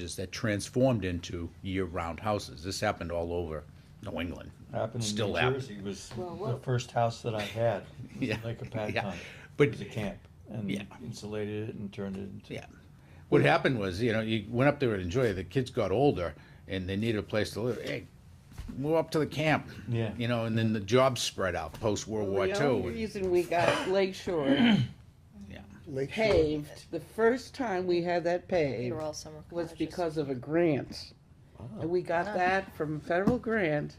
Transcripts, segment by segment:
houses that transformed into year-round houses. This happened all over New England. Happened in Still New happened. Jersey was Well, the what- first house that I had, It was Yeah, like a pad yeah. condo. But- It was a camp Yeah. and insulated it and turned it into. Yeah. What happened was, you know, you went up there and enjoyed it. The kids got older and they needed a place to live. Hey, move up to the camp. Yeah. You know, and then the jobs spread out post World War The only II. reason we got Lake Shore Yeah. Lake Shore. paved, the first time we had that They paved were all summer was cottages. because of a grant. And we got Ah. that from a federal grant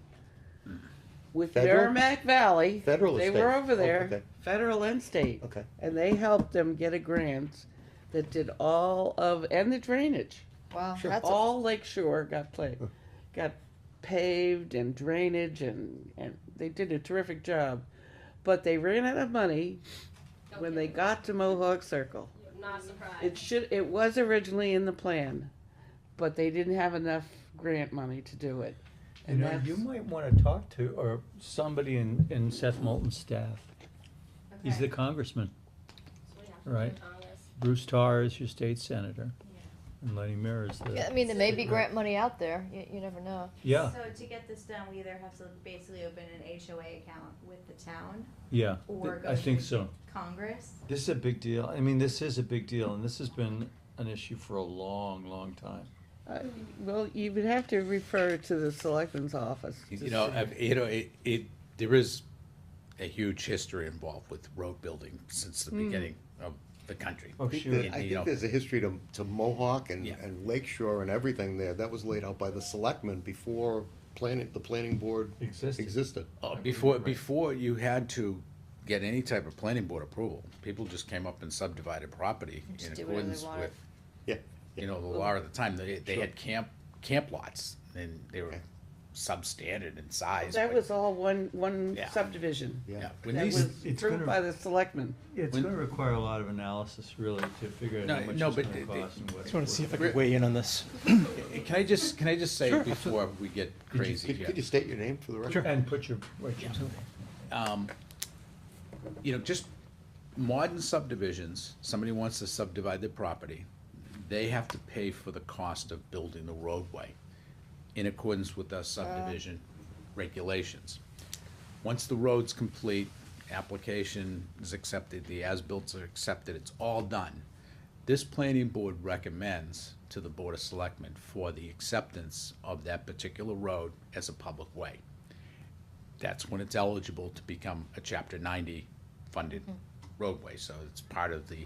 with Federal? Merrimack Valley. Federal or They state? were over Oh, there, okay. federal and state. Okay. And they helped them get a grant that did all of, and the drainage. Wow, Sure. that's, a- All Lake Shore got played, got paved and drainage and, and they did a terrific job. But they ran out of money when they got to Mohawk Circle. Not surprised. It should, it was originally in the plan, but they didn't have enough grant money to do it. You And know, you that's, might wanna talk to, or somebody in, in Seth Moulton's staff. He's the Okay. congressman. So we have to right. do Congress. Bruce Tarr is your state senator. And Lenny Mir is yeah, I the, mean, there may be grant money out there, you, you never know. yeah, So to get this done, we either have to basically open an HOA account with the town yeah, or th- go I think to so. Congress. This is a big deal. I mean, this is a big deal and this has been an issue for a long, long time. I- well, you would have to refer to the selectman's office. to You know, see. I- you know, it, it, there is a huge history involved with road building since the beginning of the country. Oh, I think sure. that- You I know. think there's a history to, to Mohawk and, Yeah. and Lake Shore and everything there. That was laid out by the selectmen before planning, the planning board Existed. existed. Uh, Before, before you had to get any type of planning board approval, people just came up and subdivided property just in do whatever they accordance wanted. with, Yeah, you know, the law of the time. They, they had camp, camp lots and they were substandard in size. That but- was all one, one Yeah. subdivision. yeah. Yeah, when That these, was It's gonna- approved by the selectmen. It's When- gonna require a lot of analysis really to figure out No, how much no, it's but gonna it- cost and what. Just want to see if I Rick- could weigh in on this. Can I just, can I just say before we get crazy Could, here? could you state your name for the record? And put your, what you you know, just modern subdivisions, somebody wants to subdivide their property, they have to pay for the cost of building the roadway in accordance with our subdivision regulations. Once the road's complete, application is accepted, the as-built are accepted, it's all done. This planning board recommends to the Board of Selectmen for the acceptance of that particular road as a public way that's when it's eligible to become a chapter ninety funded Hmm. roadway, so it's part of the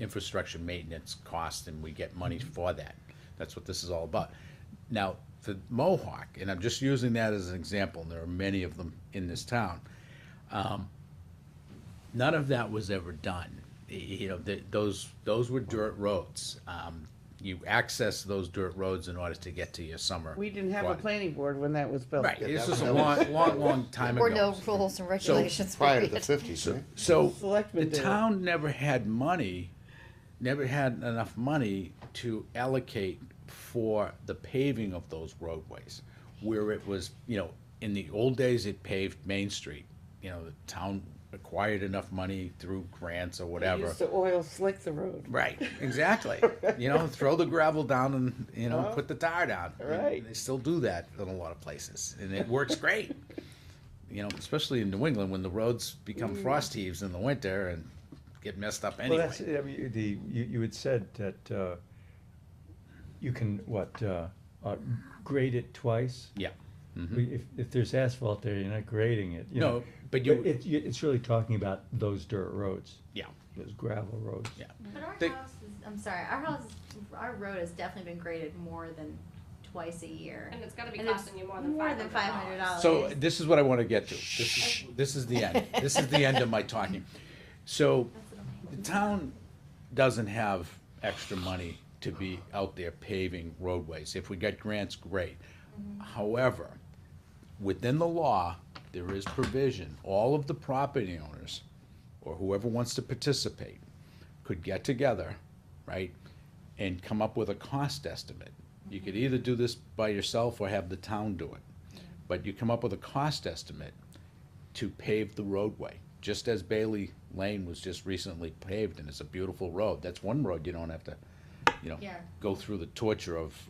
infrastructure maintenance cost and we get money Mm-hmm. for that. That's what this is all about. Now, the Mohawk, and I'm just using that as an example, and there are many of them in this town. um, None of that was ever done. Y- You know, th those, those were dirt roads. Um, you access those dirt roads in order to get to your summer. We didn't have a quad- planning board when that was built. Right, Yeah, this that was a was- long, long, long time ago. Or no rules and regulations. Prior to period. the fifties, right? So Selectmen the did it. town never had money, never had enough money to allocate for the paving of those roadways. Where it was, you know, in the old days, it paved Main Street. You know, the town acquired enough money through grants or They whatever. used to oil slick the road. Right, exactly. You know, throw the gravel down and, you know, Uh-huh. put the tar down. Right. They still do that in a lot of places, and it works great. You know, especially in New England when the roads become frost heaves in the winter and get messed up Well, anyway. that's, I mean, the, you, you had said that, uh, you can, what, uh, uh, grade it twice? Yeah. We- If, if there's asphalt there, you're not grading it, you know. Mm-hmm. No, but you- It, you- it's really talking about those dirt roads, Yeah. those gravel roads. Yeah. But our They- house is, I'm sorry, our house, our road has definitely been graded more than twice a year. And it's gotta be And it's costing you more than more than $500. $500. So this is what I want to get to. This is, this is the end. This is the end of my talking. So That's what I'm- the town doesn't have extra money to be out there paving roadways. If we get grants, great. However, within the law, there is provision, all of the property owners, or whoever wants to participate, could get together, right, and come up with a cost estimate. You could either do this by yourself or have the town do it. But you come up with a cost estimate to pave the roadway, just as Bailey Lane was just recently paved, and it's a beautiful road. That's one road you don't have to, you know, Yeah. go through the torture of,